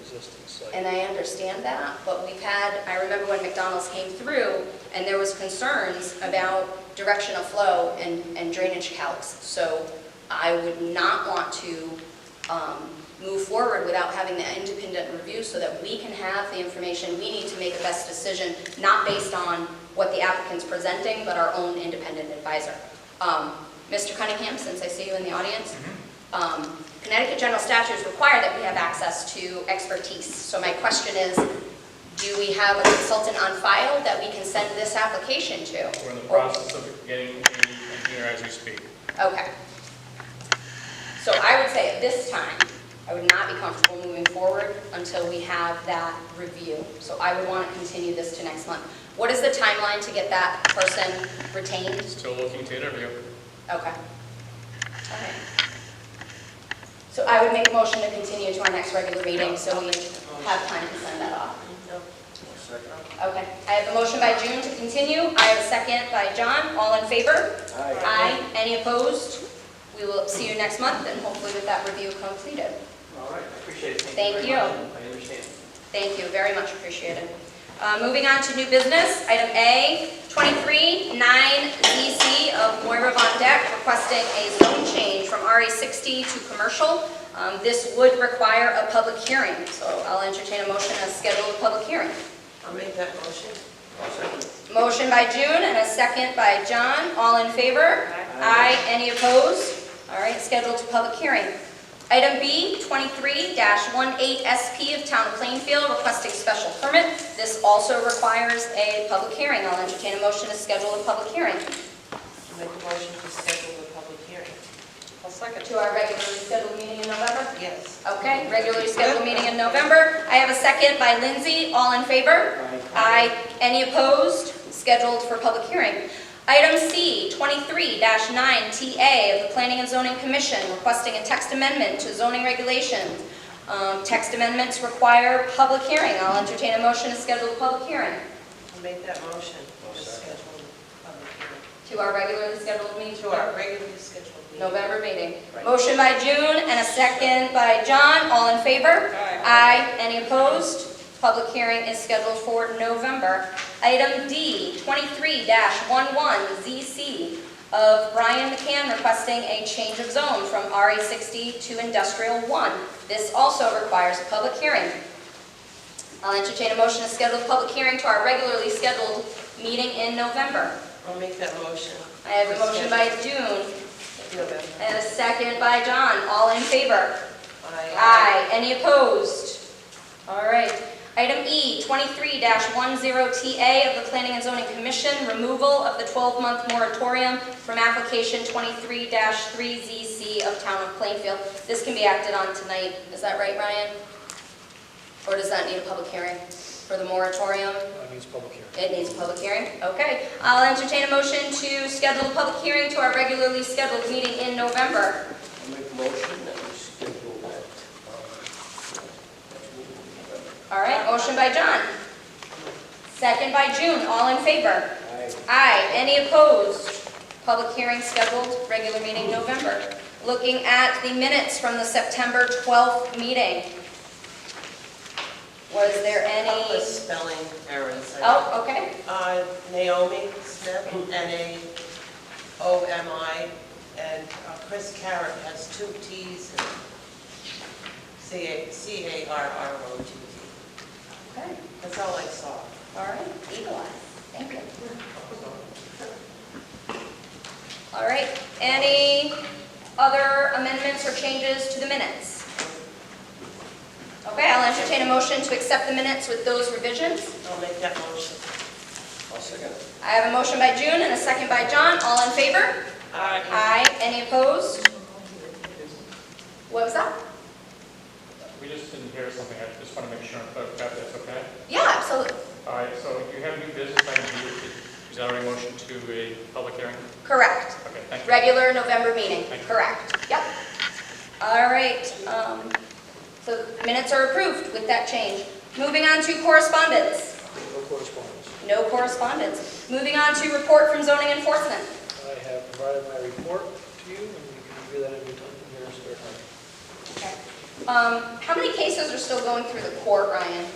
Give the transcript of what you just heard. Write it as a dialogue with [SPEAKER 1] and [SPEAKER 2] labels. [SPEAKER 1] existing site.
[SPEAKER 2] And I understand that, but we've had, I remember when McDonald's came through, and there was concerns about direction of flow and and drainage calcs. So I would not want to um, move forward without having that independent review so that we can have the information we need to make the best decision, not based on what the applicant's presenting, but our own independent advisor. Um, Mr. Cunningham, since I see you in the audience, um, Connecticut general statutes require that we have access to expertise. So my question is, do we have a consultant on file that we can send this application to?
[SPEAKER 3] We're in the process of getting an engineer as we speak.
[SPEAKER 2] Okay. So I would say at this time, I would not be comfortable moving forward until we have that review. So I would want to continue this to next month. What is the timeline to get that person retained?
[SPEAKER 3] Still looking to interview.
[SPEAKER 2] Okay. All right. So I would make a motion to continue to our next regular meeting, so we have time to send that off. Okay, I have a motion by June to continue, I have a second by John, all in favor? Aye. any opposed? We will see you next month, and hopefully with that review completed.
[SPEAKER 4] All right, I appreciate it.
[SPEAKER 2] Thank
[SPEAKER 4] very much. I understand.
[SPEAKER 2] Thank you, very much appreciated. Uh, Moving on to new business, item A, 23-9ZC of Moira Von Deck requesting a zone change from RA60 to commercial. Um, This would require a public hearing, so I'll entertain a motion to schedule a public hearing.
[SPEAKER 5] I'll make that motion.
[SPEAKER 4] I'll second.
[SPEAKER 2] Motion by June and a second by John. All in favor?
[SPEAKER 4] Aye.
[SPEAKER 2] Any opposed? All right, scheduled to public hearing. Item B, 23-18SP of Town of Plainfield requesting special permit. This also requires a public hearing. I'll entertain a motion to schedule a public hearing
[SPEAKER 5] I'll make a motion to schedule the public hearing. I'll second.
[SPEAKER 2] to our regularly scheduled meeting in November.
[SPEAKER 5] Yes.
[SPEAKER 2] Okay, regularly scheduled meeting in November. I have a second by Lindsay. All in favor? Aye. Any opposed? Scheduled for public hearing. Item C, 23-9TA of the Planning and Zoning Commission requesting a text amendment to zoning regulations. Um, Text amendments require public hearing. I'll entertain a motion to schedule a public hearing
[SPEAKER 5] I'll make that motion to schedule the public hearing.
[SPEAKER 2] to our regularly scheduled meeting.
[SPEAKER 5] To our regularly scheduled meeting.
[SPEAKER 2] November meeting.
[SPEAKER 5] Right.
[SPEAKER 2] Motion by June and a second by John, all in favor?
[SPEAKER 5] Aye.
[SPEAKER 2] Any opposed? Public hearing is scheduled for November. Item D, 23-11ZC of Brian McCann requesting a change of zone from RA60 to Industrial 1. This also requires a public hearing. I'll entertain a motion to schedule a public hearing to our regularly scheduled meeting in November.
[SPEAKER 5] I'll make that motion.
[SPEAKER 2] I have a motion by June
[SPEAKER 5] November.
[SPEAKER 2] and a second by John. All in favor?
[SPEAKER 5] Aye.
[SPEAKER 2] Aye. Any opposed? All right. Item E, 23-10TA of the Planning and Zoning Commission, removal of the 12-month moratorium from application 23-3ZC of Town of Plainfield. This can be acted on tonight. Is that right, Ryan? Or does that need a public hearing for the moratorium?
[SPEAKER 1] That means public hearing.
[SPEAKER 2] It needs a public hearing? Okay. I'll entertain a motion to schedule a public hearing to our regularly scheduled meeting in November.
[SPEAKER 4] I'll make a motion that we schedule that. um, that meeting in November.
[SPEAKER 2] All right, motion by John. Second by June, all in favor? Aye. Any opposed? Public hearing scheduled, regular meeting November. Looking at the minutes from the September 12th meeting. Was there
[SPEAKER 5] Couple of
[SPEAKER 2] any?
[SPEAKER 5] spelling errors.
[SPEAKER 2] Oh, okay,
[SPEAKER 5] Uh, Naomi Smith, N-A-O-M-I, and uh, Chris Carrot has two Ts and C-A- C-A-R-R-O-T-T.
[SPEAKER 2] okay,
[SPEAKER 5] That's all I saw.
[SPEAKER 2] all right, eagle eye, thank you. All right, any other amendments or changes to the minutes? Okay, I'll entertain a motion to accept the minutes with those revisions.
[SPEAKER 5] I'll make that motion.
[SPEAKER 4] I'll second.
[SPEAKER 2] I have a motion by June and a second by John. All in favor?
[SPEAKER 5] Aye.
[SPEAKER 2] Aye. Any opposed? What was that?
[SPEAKER 3] We just didn't hear something, I just want to make sure I'm clear, if that's okay?
[SPEAKER 2] Yeah, absolutely.
[SPEAKER 3] All right, so you have new business, I need, is that already motion to a public hearing?
[SPEAKER 2] Correct.
[SPEAKER 3] Okay, thank you.
[SPEAKER 2] Regular November meeting, correct. Yep. All right, um, so minutes are approved with that change. Moving on to correspondence.
[SPEAKER 1] No correspondence.
[SPEAKER 2] No correspondence. Moving on to report from zoning enforcement.
[SPEAKER 1] I have provided my report to you, and you can review that if you're done here, sir.
[SPEAKER 2] Okay. Um, How many cases are still going through the court, Ryan?